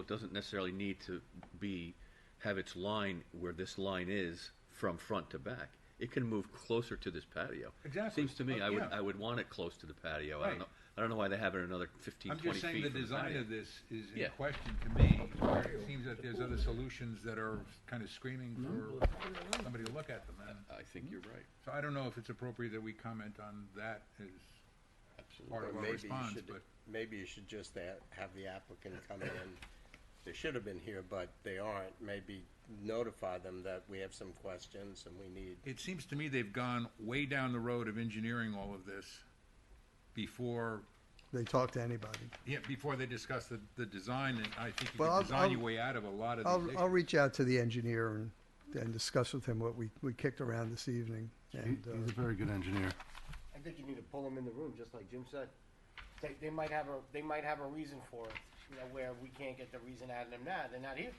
It doesn't necessarily need to be, have its line where this line is from front to back. It can move closer to this patio. Exactly. Seems to me, Uh, I would, yeah. I would want it close to the patio. I Right. don't know, I don't know why they have it another 15, I'm 20 just saying feet the from the design patio. of this is Yeah. in question to me. where It seems that there's other solutions that are kind of screaming for Mm-hmm. somebody to look at them. And I think you're right, so I don't know if it's appropriate that we comment on that as part absolutely. of But our maybe you response, should, but maybe you should just a- have the applicant come in. They should have been here, but they aren't. Maybe notify them that we have some questions and we need, it seems to me they've gone way down the road of engineering all of this before, They talk to anybody. yeah, before they discuss the, the design, and I think you Well, can I'll- design your I'll- way out of a lot of I'll, these I'll issues. reach out to the engineer and, and discuss with him what we, we kicked around this evening. He- And, He's a uh, very good engineer. I think you need to pull them in the room, just like Jim said. They, they might have a, they might have a reason for it, you know, where we can't get the reason out of them now, they're not here.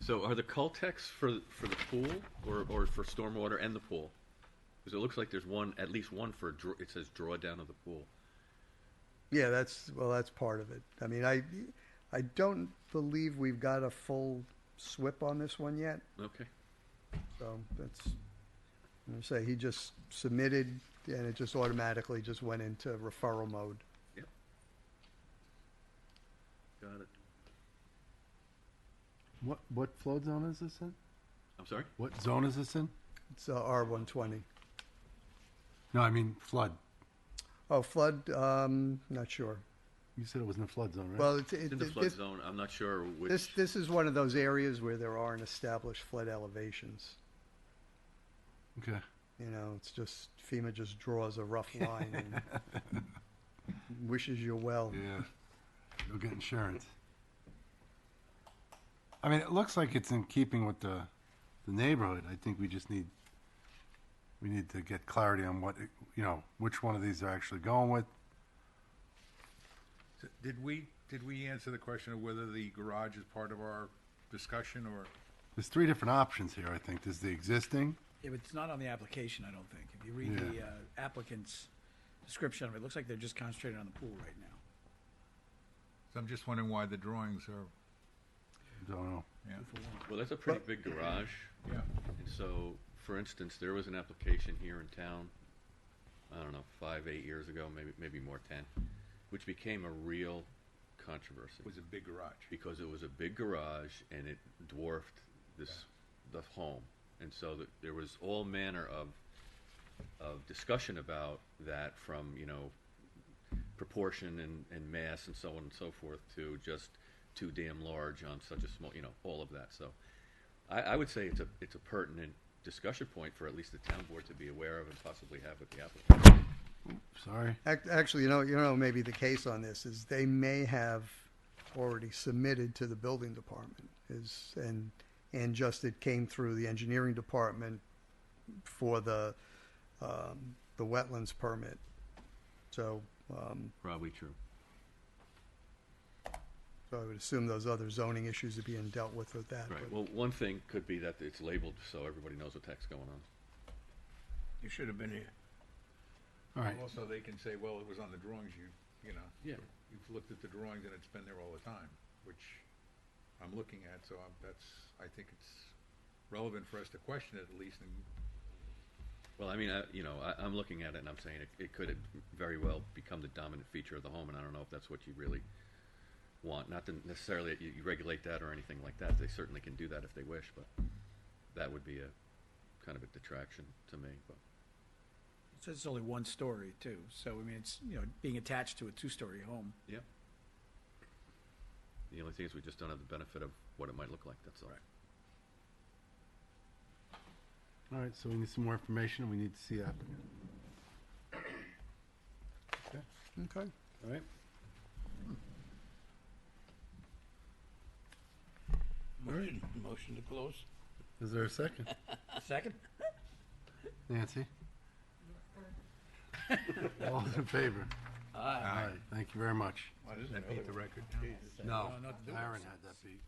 So are the cultex for, for the pool or, or for stormwater and the pool? Because it looks like there's one, at least one for, draw- it says drawdown of the pool. yeah, that's, well, that's part of it. I mean, I, I don't believe we've got a full SWIP on this one yet, Okay, so that's, I'm gonna say, he just submitted and it just automatically just went into referral mode. got it. What, what flood zone is this in? I'm sorry? What zone is this in? It's uh, R one twenty. No, I mean flood. Oh, flood, um, not sure. You said it was in the flood zone, right? Well, it's, In it, the flood this, zone, I'm not sure which. this, this is one of those areas where there aren't established flood elevations. Okay. You know, it's just FEMA just draws a rough line and wishes you well. Yeah. You'll get insurance. I mean, it looks like it's in keeping with the, the neighborhood. I think we just need, we need to get clarity on what, it- you know, which one of these are actually going with. So Did we, did we answer the question of whether the garage is part of our discussion or? There's three different options here, I think. There's the existing. Yeah, but it's not on the application, I don't think. If you read the uh, applicant's description of it, it looks like they're just concentrating on the pool right now. So I'm just wondering why the drawings are, Don't know. Well, that's a pretty big garage, yeah. and so, for instance, there was an application here in town, I don't know, five, eight years ago, maybe, maybe more, ten, which became a real controversy, Was a big garage. because it was a big garage and it dwarfed this, the home. And so that, there was all manner of, of discussion about that from, you know, proportion and, and mass and so on and so forth to just too damn large on such a small, you know, all of that. So I, I would say it's a, it's a pertinent discussion point for at least the town board to be aware of and possibly have with the applicant. Sorry. Ac- Actually, you know, you know, maybe the case on this is they may have already submitted to the building department is, and, and just it came through the engineering department for the, um, the wetlands permit. So, um, Probably true. so I would assume those other zoning issues are being dealt with with that. Right. but- Well, one thing could be that it's labeled so everybody knows what the heck's going on. You should have been here. All right. Also, they can say, well, it was on the drawings, you, you know. Yeah. You've looked at the drawings and it's been there all the time, which I'm looking at, so I'm, that's, I think it's relevant for us to question it at least and Well, I mean, I, you know, I, I'm looking at it and I'm saying it, it could very well become the dominant feature of the home, and I don't know if that's what you really want. Not that necessarily that you, you regulate that or anything like that. They certainly can do that if they wish, but that would be a kind of a detraction to me. But It says it's only one story too, so I mean, it's, you know, being attached to a two-story home. yeah, the only thing is we just don't have the benefit of what it might look like. That's all. All right, so we need some more information, and we need to see applicant. Okay. All right. Motion, motion to close. Is there a second? Second? Nancy? All in favor? Aye. Thank you very much. that beat the record. No, not to do it. Aaron had that beat.